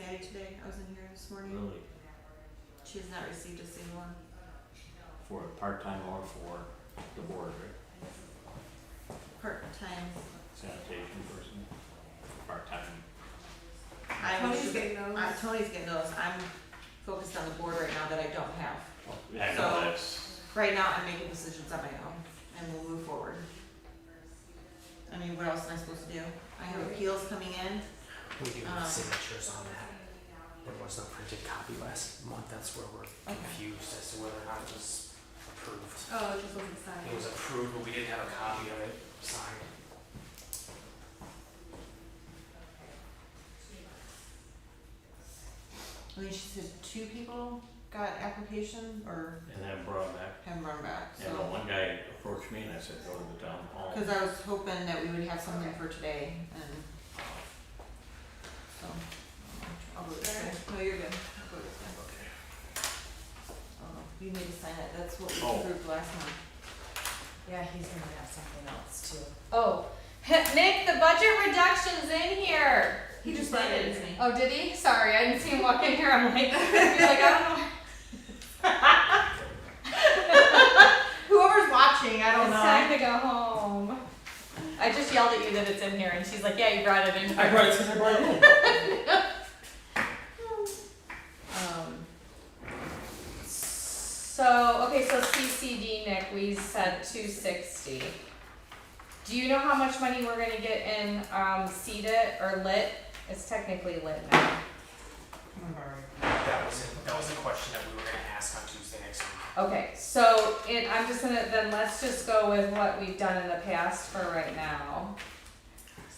I was in here this morning. really She has not received a single one. for a part-time or for the board, right? Part-time. Sanitation person, part-time. I'm Tony's getting those. Uh, Tony's getting those. I'm focused on the board right now that I don't have. Yeah, So- no, that's, Right now, I'm making decisions on my own and we'll move forward. I mean, what else am I supposed to do? I have appeals coming in. We do need Uh. Um, signatures on that. There was no printed copy last month. That's where we're Okay. confused as to whether or not it was approved. Oh, it just wasn't It was signed. approved, but we didn't have a copy of it signed. I mean, she said two people got application or and then brought him back, have run back, and the so. one guy approached me and I said, go to the town hall. Cause I was hoping that we would have something for today and. So. I'll go this way. No, you're good. I'll go this way. Oh, you need to sign it, that's what we Oh. approved last month. Yeah, he's gonna have something else too. Oh, Nick, the budget reduction's in here. He just signed it, isn't he? Oh, did he? Sorry, I didn't see him walk in here. I'm like, he's like, I don't know. Whoever's watching, I It's time to go home. I just yelled at you that it's in here, and she's like, Yeah, you brought it in. I brought it because I brought it in. Um, so okay, so CCD Nick, we said two sixty. Do you know how much money we're gonna get in um CETA or lit? It's technically lit now. That was it. That was the question that we were gonna ask on Tuesday next week. Okay, so it, I'm just gonna then let's just go with what we've done in the past for right now,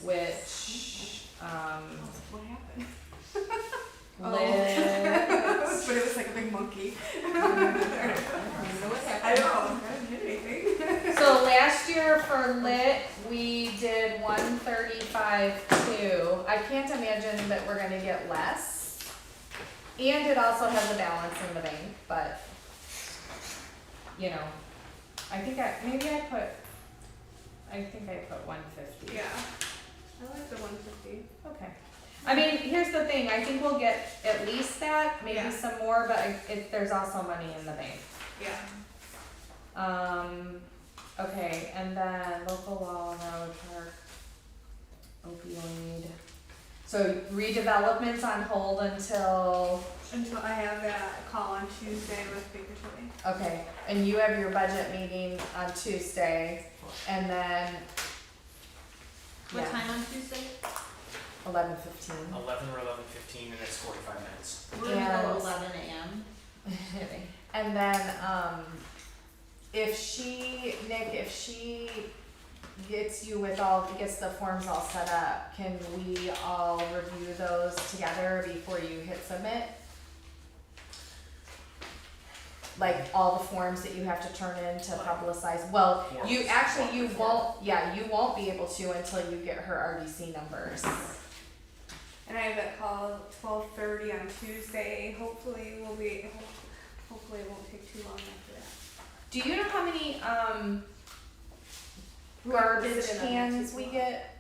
which um What happened? lit. But it was like a big monkey. what I happened. don't know. I didn't hit anything. So last year for lit, we did one thirty-five two. I can't imagine that we're gonna get less. And it also has a balance in the bank, but, you know, I think I, maybe I put, I think I put one fifty. Yeah. I like the 150. Okay. I mean, here's the thing, I think we'll get at least that, maybe Yeah. some more, but I- it, there's also money in the bank. Yeah. Um, okay, and then local law and road park opioid. So redevelopment's on hold until, Until I have that call on Tuesday with Baker Tilly. okay, and you have your budget meeting on Tuesday, and then. What time on Tuesday? Eleven fifteen. Eleven or eleven fifteen, and it's forty-five minutes. We're gonna go Yes. eleven AM. and then um, if she Nick, if she gets you with all gets the forms all set up, can we all review those together before you hit submit? Like all the forms that you have to turn in to publicize. Well, you Forms, actually you forms. won't. Yeah, you won't be able to until you get her RDC numbers. And I have that call at 12:30 on Tuesday. Hopefully, we'll be. Hopefully, it won't take too long after that. Do you know how many um garbage Garbage and cans other we people. get?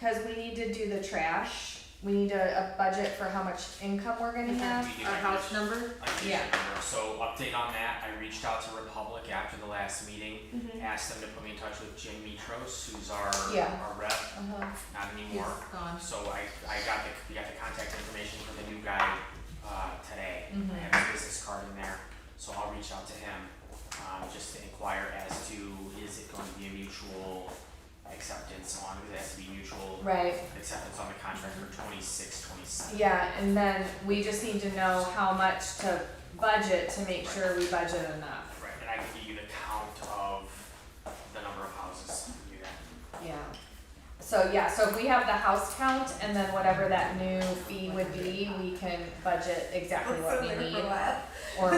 Cause we need to do the trash. We need a, a budget for how much income we're gonna have. We did Our not house number? I think Yeah. remember. So update on that, I reached out to Republic after the last meeting, asked them to put me in touch with Jim Mitros, who's our, Yeah. our rep, Uh-huh. not He's anymore. gone. So I, I got the, we got the contact information for the new guy, uh, today. I Mhm. have his business card in there, so I'll reach out to him, um, just to inquire as to is it going to be a mutual acceptance on, it has to be mutual Right, acceptance on the contract for twenty-six, twenty-seven. yeah, and then we just need to know how much to budget to make sure we budget enough. Right, and I can give you the count of the number of houses, you can do that. Yeah. So yeah, so if we have the house count and then whatever that new fee would be, we can budget exactly That's what so we weird for need a while. or